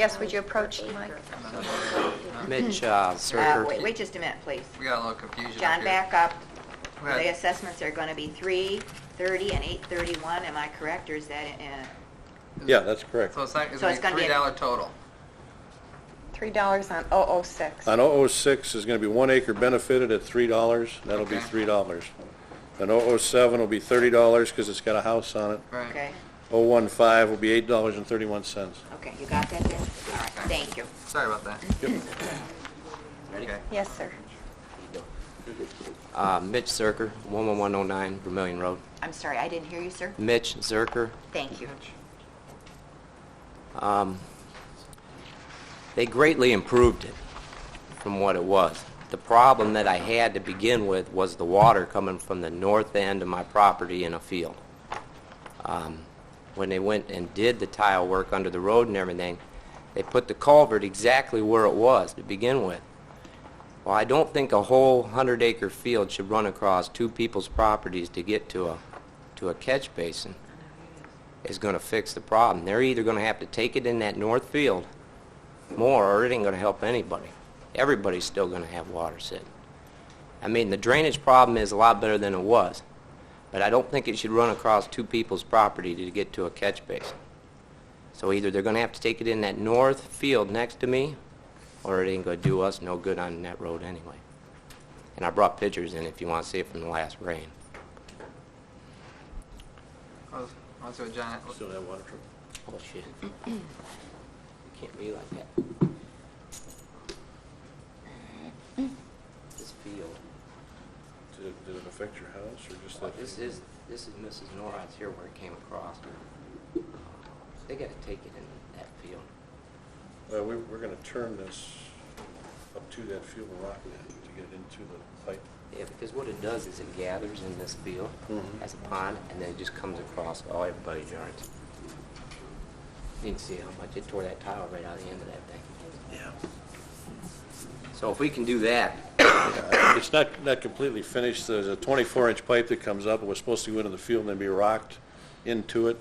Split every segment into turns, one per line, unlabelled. Yes, would you approach the mic?
Mitch uh,
Uh,
Zerker.
Wait, wait just a minute, please.
We got a little confusion up here.
John, back up.
Go ahead.
The assessments are going to be 3:30 and 8:31, am I correct, or is that, uh,
Yeah, that's correct.
So it's not, it's
So it's gonna
gonna be
be a-
three dollar total.
Three dollars on 006.
Uh,
On 006 is going to be one acre benefited at $3, that'll be
Okay.
$3. And 007 will be $30 because it's got a house on it.
Right.
okay,
015 will be $8.31.
okay, you got that, Dan? All right, thank you.
Sorry about that. Okay.
Yes, sir.
Uh, Mitch Zerker, 11109 Vermillion Road.
I'm sorry, I didn't hear you, sir.
Mitch Zerker,
Thank you.
um, they greatly improved it from what it was. The problem that I had to begin with was the water coming from the north end of my property in a field. Um, When they went and did the tile work under the road and everything, they put the culvert exactly where it was to begin with. Well, I don't think a whole hundred acre field should run across two people's properties to get to a, to a catch basin is going to fix the problem. They're either going to have to take it in that north field more, or it ain't going to help anybody. Everybody's still going to have water sitting. I mean, the drainage problem is a lot better than it was, but I don't think it should run across two people's property to get to a catch basin. So either they're going to have to take it in that north field next to me, or it ain't going to do us no good on that road anyway. And I brought pictures in if you want to see it from the last rain.
Let's- Let's go, John.
Oh, shit. Can't be like that. This field,
Did it did it affect your house or just that?
this is, this is Mrs. Norris here where it came across. They gotta take it in that field.
Well, Uh, we- we're going to turn this up to that field and rock it to get it into the pipe.
Yeah, because what it does is it gathers in this field
Mhm.
as a pond, and then it just comes across all everybody's yards. You can see how much it tore that tile right out of the end of that thing.
Yeah.
So if we can do that,
It's not, not completely finished. There's a 24-inch pipe that comes up. It was supposed to go into the field and then be rocked into it.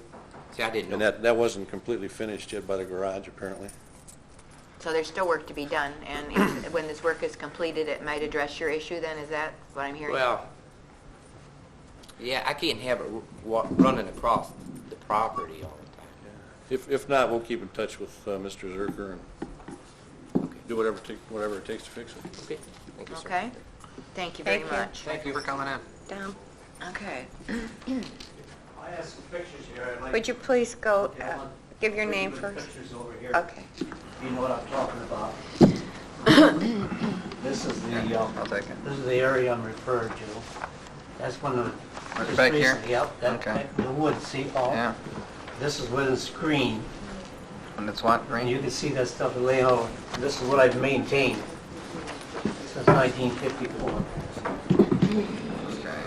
see, I didn't know.
And that, that wasn't completely finished yet by the garage, apparently.
So there's still work to be done, and if- when this work is completed, it might address your issue then, is that what I'm hearing?
Well, yeah, I can't have it ru- wa- running across the property all the
If, if not, we'll keep in touch with uh, Mr. Zerker and
time.
do whatever, it take- whatever it takes to fix it.
Okay, thank you, sir.
Okay, thank you very
Thank you.
much.
Thank you for coming in.
Down.
Okay.
I have some pictures here. I'd like
Would you please go,
Yeah,
uh,
one-
give your
Put
name
the
first?
Pictures over here.
Okay.
You know what I'm talking about. This is the, um,
I'll take it.
this is the area I'm referring to. That's one of the...
Right
just
back here?
recently, Yep, that,
Okay.
that- the woods, see, all,
Yeah,
this is within screen,
and it's what,
and
green?
you can see that stuff laying out. This is what I've maintained since 1954.
Okay.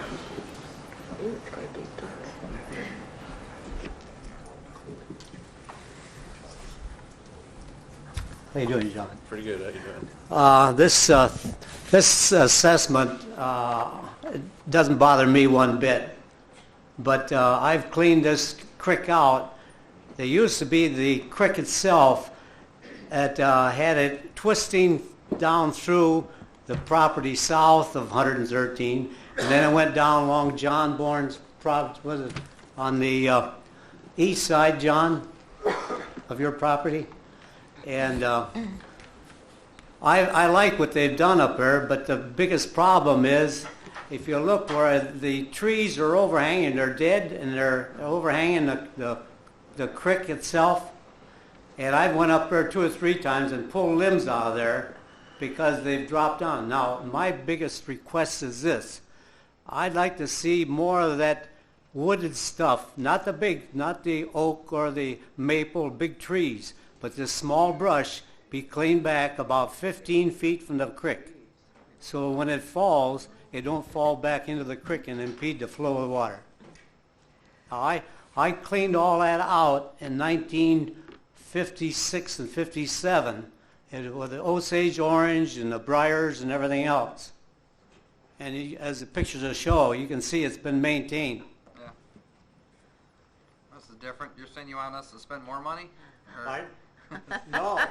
How you doing, John?
Pretty good, how you doing?
Uh, This, uh, this assessment uh, doesn't bother me one bit, but uh, I've cleaned this creek out. There used to be the creek itself that uh, had it twisting down through the property south of 113, and then it went down along John Bourne's prop, was it, on the uh, east side, John, of your property? And uh, I, I like what they've done up there, but the biggest problem is, if you look where the trees are overhanging, they're dead, and they're overhanging the, the, the creek itself. And I've went up there two or three times and pulled limbs out of there because they've dropped down. Now, my biggest request is this. I'd like to see more of that wooded stuff, not the big, not the oak or the maple, big trees, but this small brush be cleaned back about 15 feet from the creek. So when it falls, it don't fall back into the creek and impede the flow of water. I, I cleaned all that out in 1956 and 57, and with the Osage orange and the briars and everything else. And you- as the pictures will show, you can see it's been maintained.
Yeah. This is different. You're saying you want us to spend more money? Or-
No.